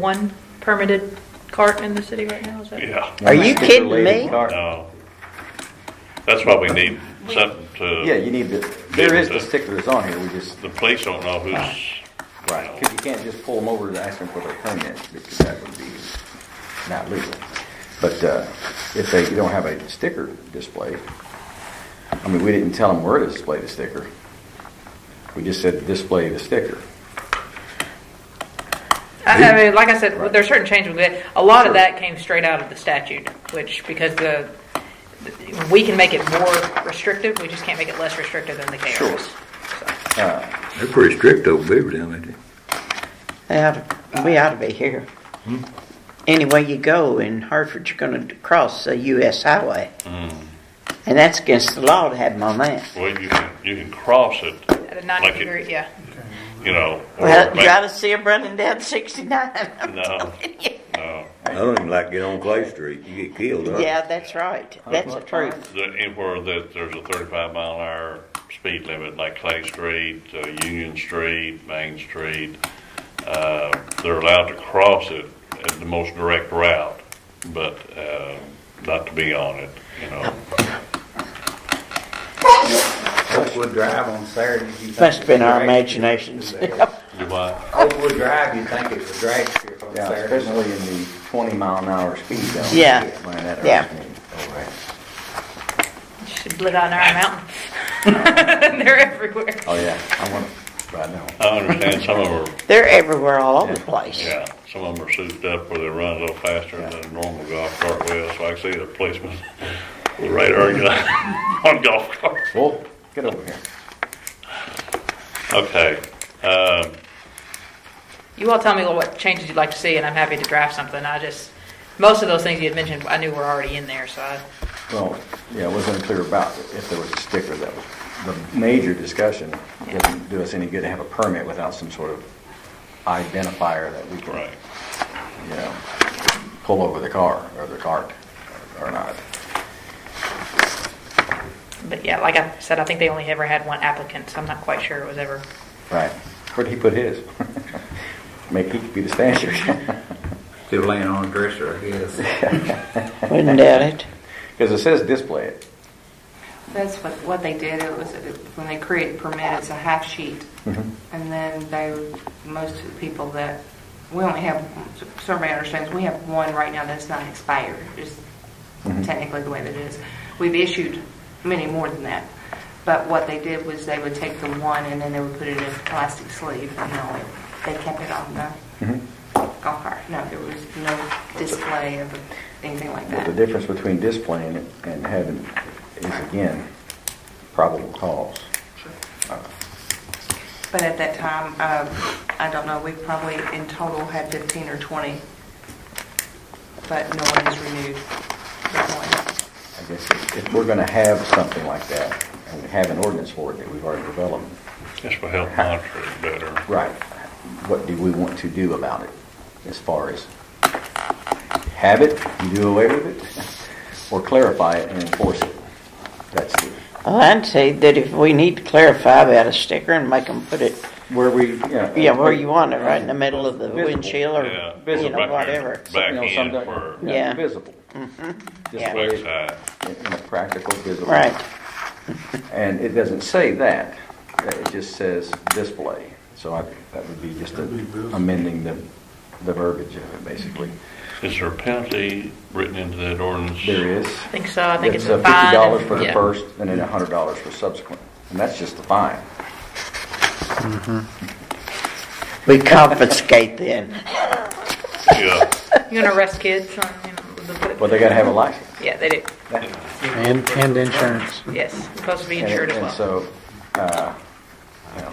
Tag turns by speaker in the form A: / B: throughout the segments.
A: one permitted cart in the city right now, is that?
B: Yeah,
C: Are you kidding me?
B: no. That's why we need something
D: Yeah,
B: to,
D: you need the, there is the sticklers on here, we just,
B: the police don't know who's,
D: right, because you can't just pull them over and ask them for their permit, because that would be not legal. But, uh, if they, you don't have a sticker display, I mean, we didn't tell them where to display the sticker. We just said display the sticker.
A: I I mean, like I said,
D: Right.
A: there's certain changes with it. A lot of
D: Sure.
A: that came straight out of the statute, which, because the, we can make it more restrictive, we just can't make it less restrictive than the
D: Sure.
A: KRS.
D: Uh,
E: They're pretty strict over Beaver down there.
C: They oughta- we ought to be here.
B: Hmm?
C: Anyway you go in Hartford, you're going to cross the U.S. highway.
B: Hmm.
C: And that's against the law to have them on that.
B: well, you can, you can cross it,
A: At a
B: Like
A: 90
B: it-
A: degree, yeah.
B: you know. or
C: Well, you
B: make- uh,
C: ought to see them running down 69. I'm
B: No.
C: telling you.
B: No,
E: I don't even like to get on Clay Street. You get killed, huh?
C: Yeah, that's right. That's the truth.
B: the- anywhere that there's a thirty-five mile an hour speed limit, like Clay Street, uh, Union Street, Main Street, uh, they're allowed to cross it at the most direct route, but, uh, not to be on it, you know.
F: Oakwood Drive on Saturday. you think
C: Must have been our
F: it's a drag
C: imaginations.
F: strip today.
B: Do what?
F: Oakwood Drive, you think it's a drag strip on
D: Yeah,
F: Saturday.
D: especially in the twenty mile an hour speed zone.
C: Yeah.
D: Man, that irks
C: Yeah.
D: me. Oh, right.
A: Should live out in Iron Mountain. They're everywhere.
D: Oh, yeah, I want, right now.
B: I understand some of them are
C: They're everywhere all over the place.
B: Yeah, some of them are souped up where they run a little faster than a normal golf cart will, so I can see the policeman with a radar gun on golf cart.
D: Well, get over here.
B: Okay, um,
A: You all tell me what changes you'd like to see, and I'm happy to draft something. I just, most of those things you had mentioned, I knew were already in there, so I,
D: Well, yeah, it wasn't clear about if there was a sticker, that was the major discussion. Doesn't do us any good to have a permit without some sort of identifier that we can,
B: right,
D: you know, pull over the car or the cart or not.
A: but yeah, like I said, I think they only ever had one applicant, so I'm not quite sure it was ever.
D: Right. Where'd he put his? Make he be the standard.
F: Still laying on a dresser, I guess.
C: Wouldn't doubt it.
D: Because it says display it.
G: That's what, what they did, it was, it- when they created permit, it's a half sheet.
D: Mm-hmm.
G: And then they, most of the people that, we only have, so everybody understands, we have one right now that's not expired, is
D: Mm-hmm.
G: technically the way that it is. We've issued many more than that, but what they did was they would take the one and then they would put it in a plastic sleeve and they'll, they kept it on the
D: Mm-hmm.
G: golf cart. No, there was no display of anything like
D: But
G: that.
D: the difference between displaying it and having is again, probable cause.
G: But at that time, um, I don't know, we probably in total had 15 or 20, but no one has renewed. that one.
D: I guess if if we're gonna have something like that, and we have an ordinance for it that we've already developed,
B: this will help monitor it better.
D: right, what do we want to do about it as far as have it, do away with it, or clarify it and enforce it? That's the,
C: Well, I'd say that if we need to clarify about a sticker and make them put it,
D: where we, you know.
C: yeah, where you want it, right in the middle of the
D: Visible.
C: windshield
B: Yeah,
C: or, you know,
B: back-
C: whatever.
B: Back
D: You know,
B: end
D: something-
B: for
C: Yeah. Mm-hmm.
D: Visible.
C: Yeah.
D: Display it
B: backside.
D: in in a practical, visible.
C: Right.
D: And it doesn't say that, it just says display. So I, that would be just a- amending the, the verbiage of it, basically.
B: Is there a penalty written into that ordinance?
D: There is.
A: I think so, I think it's
D: uh,
A: a fine.
D: Fifty dollars for the
A: Yeah.
D: first, and then a hundred dollars for subsequent, and that's just the fine.
C: We confiscate then.
B: Yeah,
A: You gonna arrest kids on, you know, the.
D: Well, they gotta have a license.
A: Yeah, they do,
H: And, and insurance.
A: yes, supposed to be
D: And-
A: insured as well.
D: And so, uh, you know,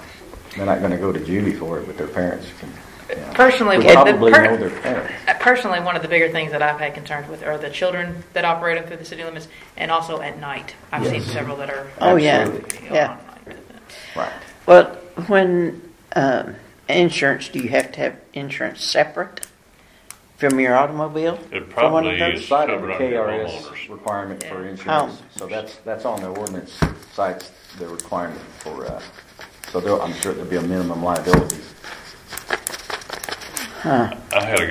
D: they're not gonna go to juvie for it, but their parents can, you know.
A: Personally,
D: We
A: would the
D: Probably
A: per-
D: know their parents.
A: Uh, Personally, one of the bigger things that I've had concerns with are the children that operate up through the city limits and also at night. I've seen
D: Yes.
A: several that are.
C: Oh, yeah,
A: you know,
C: yeah.
A: on night.
D: Right.
C: Well, when, um, insurance, do you have to have insurance separate from your automobile?
B: It
C: for one of
B: probably
C: those?
B: is.
D: Side of the
B: covered under
D: KRS
B: homeowners.
D: requirement for
A: Yeah.
D: insurance,
C: Oh.
D: so that's, that's on the ordinance sites, the requirement for, uh, so there, I'm sure there'll be a minimum liability.
B: I had a